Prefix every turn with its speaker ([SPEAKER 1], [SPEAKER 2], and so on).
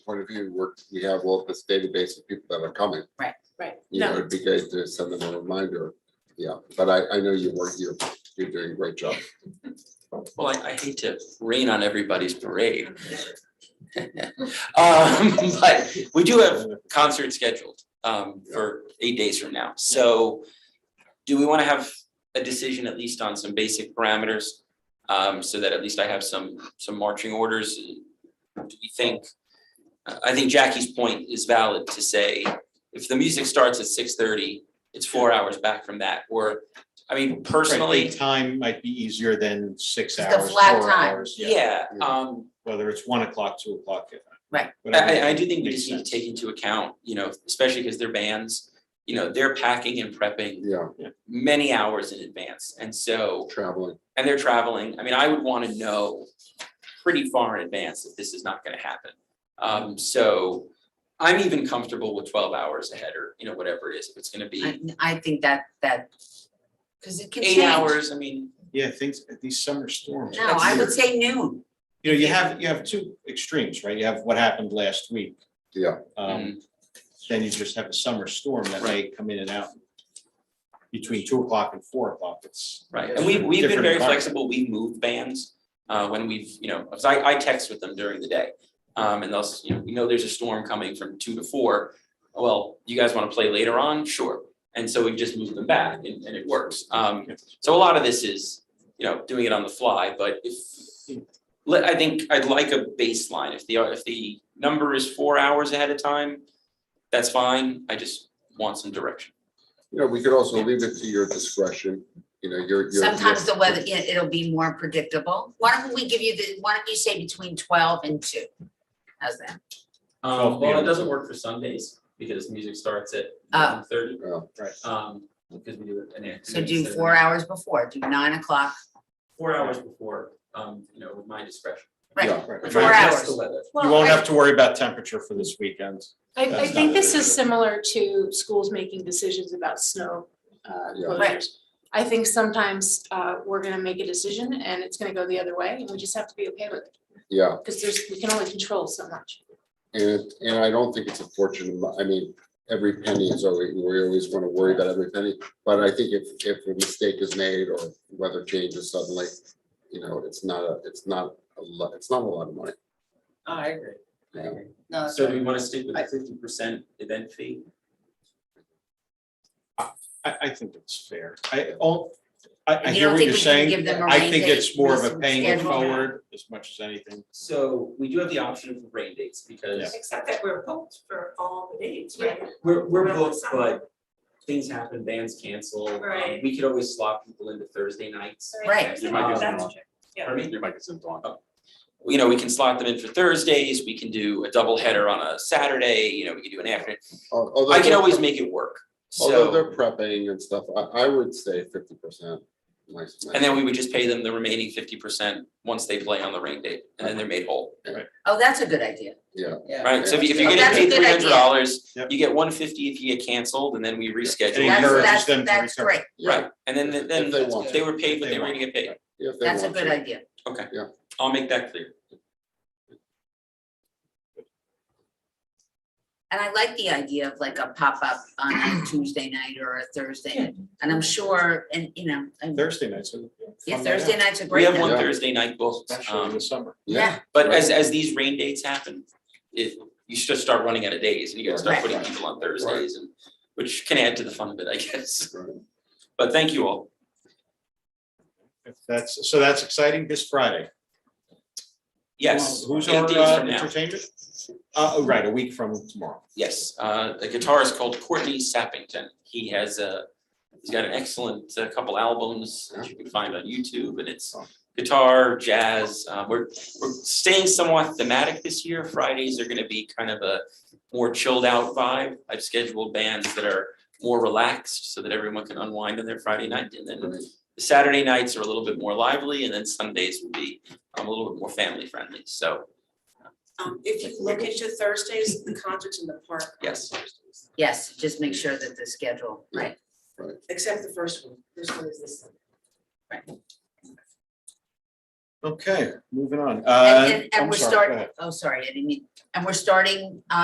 [SPEAKER 1] point of view, we're, we have all this database of people that are coming.
[SPEAKER 2] Right.
[SPEAKER 1] You know, it'd be great to send them a reminder. Yeah, but I, I know you work, you're, you're doing a great job.
[SPEAKER 3] Well, I, I hate to rain on everybody's parade. Um, but we do have concerts scheduled, um, for eight days from now, so do we wanna have a decision at least on some basic parameters? Um, so that at least I have some, some marching orders, do we think? I, I think Jackie's point is valid to say, if the music starts at six thirty, it's four hours back from that, or, I mean, personally.
[SPEAKER 4] Right, the Time might be easier than six
[SPEAKER 2] Just
[SPEAKER 4] hours.
[SPEAKER 2] a flat
[SPEAKER 4] four
[SPEAKER 2] time.
[SPEAKER 4] hours,
[SPEAKER 3] Yeah,
[SPEAKER 1] Yeah.
[SPEAKER 3] um,
[SPEAKER 4] Whether it's one o'clock, two o'clock. yeah.
[SPEAKER 2] Right.
[SPEAKER 3] I,
[SPEAKER 4] Whatever
[SPEAKER 3] I, I do think we
[SPEAKER 4] makes
[SPEAKER 3] just need to
[SPEAKER 4] sense.
[SPEAKER 3] take into account, you know, especially because they're bands, you know, they're packing and prepping
[SPEAKER 1] Yeah,
[SPEAKER 3] many hours in advance. And so,
[SPEAKER 1] traveling.
[SPEAKER 3] and they're traveling, I mean, I would want to know pretty far in advance if this is not going to happen. Um, so I'm even comfortable with twelve hours ahead or, you know, whatever it is, if it's going to
[SPEAKER 2] I,
[SPEAKER 3] be
[SPEAKER 2] I think that, that, because it can change.
[SPEAKER 3] eight hours, I mean,
[SPEAKER 4] Yeah, things, these summer storms.
[SPEAKER 2] No, I would say noon.
[SPEAKER 4] You know, you have, you have two extremes, right? You have what happened last week.
[SPEAKER 1] Yeah.
[SPEAKER 4] Um, then you just have a summer storm that may
[SPEAKER 3] Mm-hmm. Right.
[SPEAKER 4] come in and out between two o'clock and four o'clock. It's.
[SPEAKER 3] Right, and we, we've been
[SPEAKER 4] Different
[SPEAKER 3] very
[SPEAKER 4] environment.
[SPEAKER 3] flexible, we move bands, uh, when we've, you know, 'cause I, I text with them during the day. Um, and they'll, s- you know, we know there's a storm coming from two to four, well, you guys wanna play later on, sure. And so we just move them back and, and it works, um, so a lot of this is, you know, doing it on the fly, but if. Let, I think I'd like a baseline, if the, if the number is four hours ahead of time, that's fine, I just want some direction.
[SPEAKER 1] You know, we could also leave it to your discretion, you know, your, your.
[SPEAKER 2] Sometimes the weather, yeah, it'll be more predictable. Why don't we give you the, why don't you say between twelve and two? How's that?
[SPEAKER 4] Um, well, it doesn't
[SPEAKER 3] work for Sundays, because music starts at
[SPEAKER 2] Oh.
[SPEAKER 3] thirty.
[SPEAKER 1] Yeah,
[SPEAKER 3] Um, because we do an activity.
[SPEAKER 2] So do
[SPEAKER 3] instead of-
[SPEAKER 2] four hours before, do nine o'clock,
[SPEAKER 3] Four hours before, um, you know, with my discretion.
[SPEAKER 2] right?
[SPEAKER 1] yeah,
[SPEAKER 4] Right.
[SPEAKER 3] We're trying
[SPEAKER 4] You
[SPEAKER 3] to
[SPEAKER 2] Four
[SPEAKER 3] test
[SPEAKER 2] hours.
[SPEAKER 3] the weather.
[SPEAKER 4] won't have to worry about temperature for this weekend.
[SPEAKER 5] I, I
[SPEAKER 4] That's
[SPEAKER 5] think
[SPEAKER 4] not
[SPEAKER 5] this
[SPEAKER 4] good.
[SPEAKER 5] is similar to schools making decisions about snow uh,
[SPEAKER 1] Yeah.
[SPEAKER 2] Right.
[SPEAKER 5] closures. I think sometimes uh, we're gonna make a decision and it's gonna go the other way, and we just have to be okay with it,
[SPEAKER 1] Yeah,
[SPEAKER 5] because there's, we can only control so much.
[SPEAKER 1] and, it- and I don't think it's a fortune, amo- I mean, every penny is always, we always want to worry about every penny. But I think if, if a mistake is made or weather changes suddenly, you know, it's not, a it's not, a lot. it's not a lot of money.
[SPEAKER 3] I agree.
[SPEAKER 1] I agree.
[SPEAKER 2] No,
[SPEAKER 3] So do we wanna stick with
[SPEAKER 2] I-
[SPEAKER 3] the fifty percent event fee?
[SPEAKER 4] I, I think it's fair. I, all, I, I
[SPEAKER 2] You
[SPEAKER 4] hear
[SPEAKER 2] don't
[SPEAKER 4] what
[SPEAKER 2] think we
[SPEAKER 4] you're
[SPEAKER 2] can give
[SPEAKER 4] saying.
[SPEAKER 2] them a
[SPEAKER 4] I
[SPEAKER 2] rain
[SPEAKER 4] think
[SPEAKER 2] date,
[SPEAKER 4] it's more of a
[SPEAKER 2] reason,
[SPEAKER 4] paying it
[SPEAKER 2] schedule?
[SPEAKER 4] forward as much as anything.
[SPEAKER 3] So we do have the option of rain dates because
[SPEAKER 6] Except that we're booked for all the dates, right?
[SPEAKER 3] we're, we're
[SPEAKER 6] We're
[SPEAKER 3] booked,
[SPEAKER 6] outside.
[SPEAKER 3] but things happen, bands cancel. Um,
[SPEAKER 6] Right.
[SPEAKER 3] We could always slot people into Thursday nights.
[SPEAKER 2] Right.
[SPEAKER 3] Your mic isn't
[SPEAKER 6] That's
[SPEAKER 3] on.
[SPEAKER 6] true. Yeah.
[SPEAKER 3] Pardon me?
[SPEAKER 7] Your mic isn't on.
[SPEAKER 3] Oh. you know, we can slot them in for Thursdays, we can do a double header on a Saturday, you know, we can do an afternoon.
[SPEAKER 1] Al- although
[SPEAKER 3] I can
[SPEAKER 1] they're-
[SPEAKER 3] always make it work,
[SPEAKER 1] Although
[SPEAKER 3] so,
[SPEAKER 1] they're prepping and stuff, I, I would say fifty percent.
[SPEAKER 3] and then we would just pay them the remaining fifty percent once they play on the rain date, and then they're made whole,
[SPEAKER 2] Oh, that's a good idea.
[SPEAKER 1] Yeah.
[SPEAKER 3] right? So if you, if you're
[SPEAKER 1] Oh,
[SPEAKER 3] getting
[SPEAKER 1] that's a
[SPEAKER 3] paid
[SPEAKER 2] good
[SPEAKER 3] three hundred dollars,
[SPEAKER 4] Yep.
[SPEAKER 3] you get one fifty if you get canceled, and then we reschedule.
[SPEAKER 4] It
[SPEAKER 2] That's-
[SPEAKER 4] encourages
[SPEAKER 2] that's-
[SPEAKER 4] them to
[SPEAKER 2] That's
[SPEAKER 4] recover.
[SPEAKER 2] great.
[SPEAKER 3] Right, and then,
[SPEAKER 1] If-
[SPEAKER 3] then
[SPEAKER 1] if they want.
[SPEAKER 3] if they were paid,
[SPEAKER 4] If
[SPEAKER 3] what
[SPEAKER 4] they
[SPEAKER 3] they were
[SPEAKER 4] want.
[SPEAKER 3] gonna get paid,
[SPEAKER 1] If they
[SPEAKER 2] That's a
[SPEAKER 1] want
[SPEAKER 2] good
[SPEAKER 1] to.
[SPEAKER 2] idea.
[SPEAKER 3] I'll make that clear.
[SPEAKER 2] And I like the idea of like a pop-up on a Tuesday night or a Thursday night, and I'm sure, and you know, and-
[SPEAKER 4] Thursday nights. are
[SPEAKER 2] yeah,
[SPEAKER 4] fun night
[SPEAKER 2] Thursday
[SPEAKER 4] out,
[SPEAKER 2] night's a
[SPEAKER 3] We
[SPEAKER 2] great
[SPEAKER 3] have one
[SPEAKER 2] night.
[SPEAKER 1] Yeah.
[SPEAKER 3] Thursday night booked,
[SPEAKER 4] Especially in
[SPEAKER 3] um,
[SPEAKER 4] the summer.
[SPEAKER 2] Yeah,
[SPEAKER 3] but as, as these rain dates happen, it, you should start running out of days, and you gotta start
[SPEAKER 2] Right.
[SPEAKER 3] putting people on Thursdays, and, which can add to the fun of it, I guess.
[SPEAKER 1] Right.
[SPEAKER 3] But thank you all.
[SPEAKER 4] If That's, so that's exciting this Friday.
[SPEAKER 3] Yes.
[SPEAKER 4] Who's
[SPEAKER 3] eight
[SPEAKER 4] our
[SPEAKER 3] days
[SPEAKER 4] uh,
[SPEAKER 3] from now.
[SPEAKER 4] entertainment? Uh, oh, right, a week from tomorrow.
[SPEAKER 3] Yes, uh, a guitarist called Courtney Sappington. He has a, he's got an excellent uh, couple albums that you can find on YouTube and it's guitar, jazz. Uh, we're, we're staying somewhat thematic this year. Fridays are gonna be kind of a more chilled out vibe. I've scheduled bands that are more relaxed so that everyone can unwind on their Friday night and then
[SPEAKER 1] Right.
[SPEAKER 3] the Saturday nights are a little bit more lively and then Sundays will be um, a little bit more family friendly. So,
[SPEAKER 6] Um, if you look into Thursdays, the concerts in the park. are
[SPEAKER 3] Yes.
[SPEAKER 6] Thursdays,
[SPEAKER 2] yes, just make sure that the schedule, right,
[SPEAKER 6] Except the first one, this one is this.
[SPEAKER 4] Okay, moving Uh, on.
[SPEAKER 2] And,
[SPEAKER 4] Uh,
[SPEAKER 2] and, and
[SPEAKER 4] I'm
[SPEAKER 2] we're
[SPEAKER 4] sorry, go ahead.
[SPEAKER 3] Uh,
[SPEAKER 2] starting, oh, sorry, I didn't mean, and we're starting,